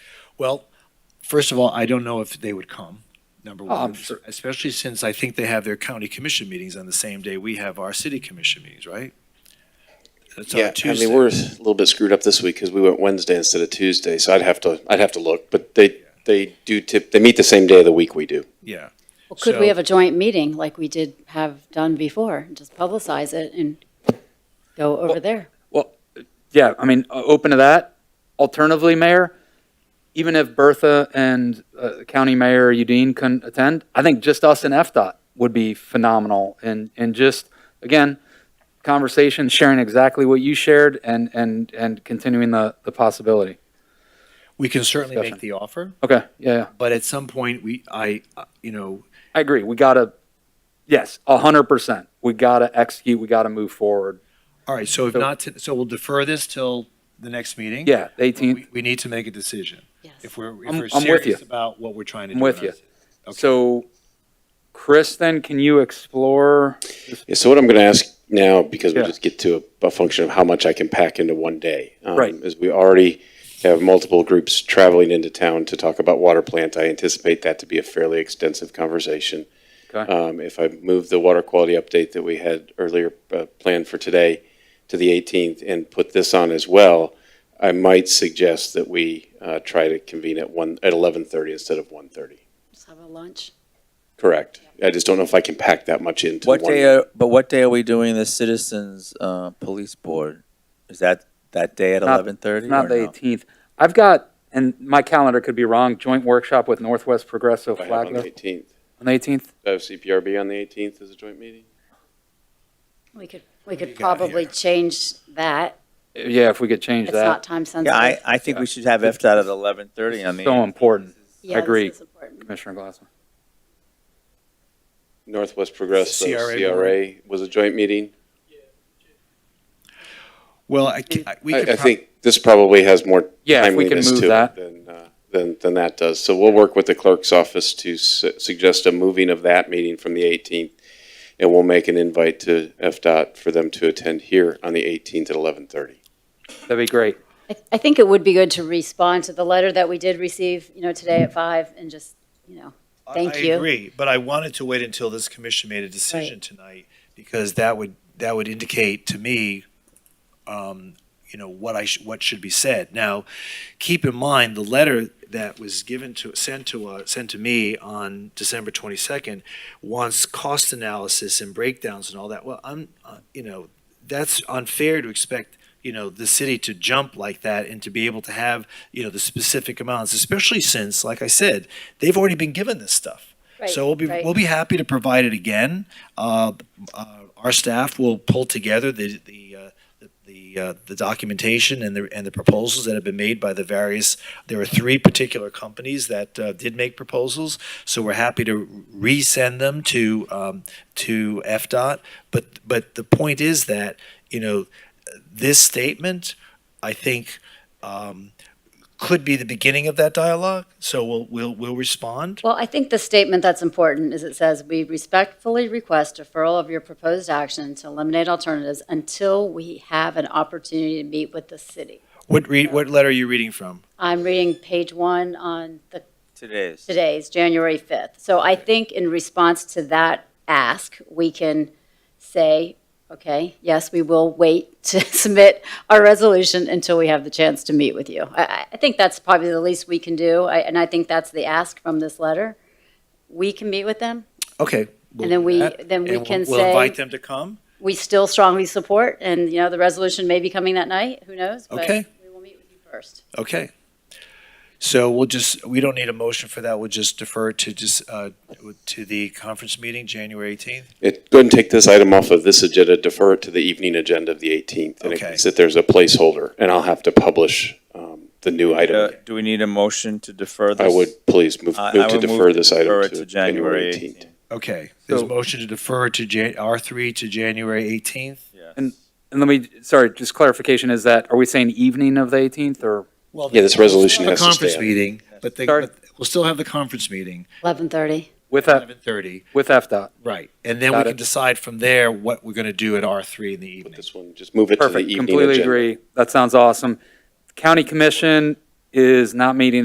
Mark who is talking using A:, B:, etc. A: Well, first of all, I don't know if they would come, number one,
B: Oh, I'm sure-
A: especially since I think they have their county commission meetings on the same day we have our city commission meetings, right? That's on a
C: Yeah, I
A: Tuesday.
C: mean, we're a little bit screwed up this week because we went Wednesday instead of Tuesday, so I'd have to, I'd have to look, but they, they do tip, they meet the same day of the week we do.
A: Yeah,
D: Well, could we
A: So-
D: have a joint meeting like we did have done before? Just publicize it and go over there.
B: Yeah, I mean, o- open to that. Alternatively, Mayor, even if Bertha and uh, County Mayor Udine couldn't attend, I think just us and FDOT would be phenomenal. And, and just, again, conversation, sharing exactly what you shared and, and, and continuing the, the possibility.
A: we can certainly make
B: Discussion.
A: the offer,
B: Okay, yeah, yeah.
A: but at some point, we, I, uh, you know,
B: I agree. We gotta, yes, a hundred percent. We gotta execute, we gotta move forward.
A: all right, so if
B: So-
A: not, to- so we'll defer this till the next meeting?
B: Yeah, eighteenth.
A: We, we need to make a decision.
D: Yes.
A: If we're, if
B: I'm-
A: we're
B: I'm with you.
A: serious about what we're trying to do.
B: I'm with
A: about
B: you.
A: it. Okay.
B: So, Chris, then can you explore?
C: Yeah, so what I'm going to ask now, because we
B: Yeah.
C: just get to a, a function of how much I can pack into one day. um,
B: Right.
C: Is we already have multiple groups traveling into town to talk about water plant. I anticipate that to be a fairly extensive conversation.
B: Okay.
C: Um, if I move the water quality update that we had earlier, uh, planned for today to the 18th and put this on as well, I might suggest that we, uh, try to convene at one, at 11:30 instead of 1:30.
D: Just have a lunch.
C: Correct. I just don't know if I can pack that much into one.
E: What day? Are, but what day are we doing the citizens uh, police board? Is that that day at
B: Not-
E: eleven thirty?
B: It's not the eighteenth. I've got, and my calendar could be wrong, joint workshop with Northwest Progressive
C: I have on the
B: uh, Flagler
C: 18th.
B: on the eighteenth.
C: I have CPRB on the 18th as a joint meeting?
D: We could, we could
A: you got
D: probably change that.
B: Yeah, if we could change
D: It's
B: that.
D: not time
E: Yeah, I,
D: sensitive.
E: I think we should have FDOT at eleven thirty. I mean,
B: So important,
D: Yeah, this
B: agree.
D: is important.
B: Commissioner Glassman.
C: Northwest Progressive,
A: CRA
C: CRA was a joint meeting.
A: Well, I, ca- I- we
C: I,
A: could.
C: I
A: prob-
C: think this probably has more
B: Yeah, if we can
C: timeliness
B: move
C: to it
B: that.
C: than, uh, than, than that does. So we'll work with the clerk's office to su- suggest a moving of that meeting from the 18th. And we'll make an invite to FDOT for them to attend here on the 18th at 11:30.
B: That'd be great.
D: I, I think it would be good to respond to the letter that we did receive, you know, today at five and just, you know,
A: I-
D: Thank
A: I
D: you.
A: agree, but I wanted to wait until this commission made a decision tonight, because that would, that would indicate to me, um, you know, what I, sh- what should be said. Now, keep in mind, the letter that was given to, sent to, uh, sent to me on December twenty-second wants cost analysis and breakdowns and all that. Well, I'm, uh, you know, that's unfair to expect, you know, the city to jump like that and to be able to have, you know, the specific amounts, especially since, like I said, they've already been given this stuff.
D: Right,
A: So we'll be,
D: right.
A: we'll be happy to provide it again. Uh, uh, Our staff will pull together the, the, uh, the, uh, the documentation and the, and the proposals that have been made by the various, there are three particular companies that uh, did make proposals. So we're happy to resend them to, um, to FDOT. But, but the point is that, you know, this statement, I think, um, could be the beginning of that dialogue. So we'll, we'll, we'll respond.
D: Well, I think the statement that's important is it says, "We respectfully request deferral of your proposed action to eliminate alternatives until we have an opportunity to meet with the city."
A: What read, what letter are you reading from?
D: I'm reading page one on the,
E: today's.
D: today's, January 5th. So I think in response to that ask, we can say, okay, yes, we will wait to submit our resolution until we have the chance to meet with you. I- I, I think that's probably the least we can do, I- and I think that's the ask from this letter. We can meet with them,
A: Okay. we'll
D: And then
A: do
D: we-
A: that.
D: then we
A: And we'll-
D: can
A: We'll invite
D: say-
A: them to come.
D: we still strongly support, and, you know, the resolution may be coming that night, who knows? but
A: Okay.
D: We will meet with you first.
A: Okay. So we'll just, we don't need a motion for that. We'll just defer to just, uh, to the conference meeting, January 18th.
C: It, go ahead and take this item off of this agenda, defer it to the evening agenda of the 18th. And it
A: Okay.
C: can sit there as a placeholder, and I'll have to publish um, the new
E: Uh,
C: item.
E: do we need a motion to defer
C: I
E: this? Uh,
C: would, please, move
E: I- I
C: move to
E: would move
C: defer
E: to
C: this
E: defer
C: item
E: it
C: to
E: to January
C: January
E: 18th.
C: 18th.
A: Okay. There's a
B: So-
A: motion to defer to Jan, R3 to January 18th.
E: Yes.
B: And- And let me, sorry, just clarification is that, are we saying evening of the eighteenth or?
A: Well,
C: Yeah, this resolution
A: the
C: has to
A: Conference
C: stand.
A: meeting, but they,
B: Sorry.
A: but we'll still have the conference meeting,
D: 11:30.
B: With that,
A: 11:30.
B: with FDOT.
A: Right. And then we
B: Got
A: can
B: it.
A: decide from there what we're going to do at R3 in the
C: With
A: evening.
C: this one, just move it to the
B: Perfect,
C: evening agenda.
B: completely agree. That sounds awesome. County Commission is not meeting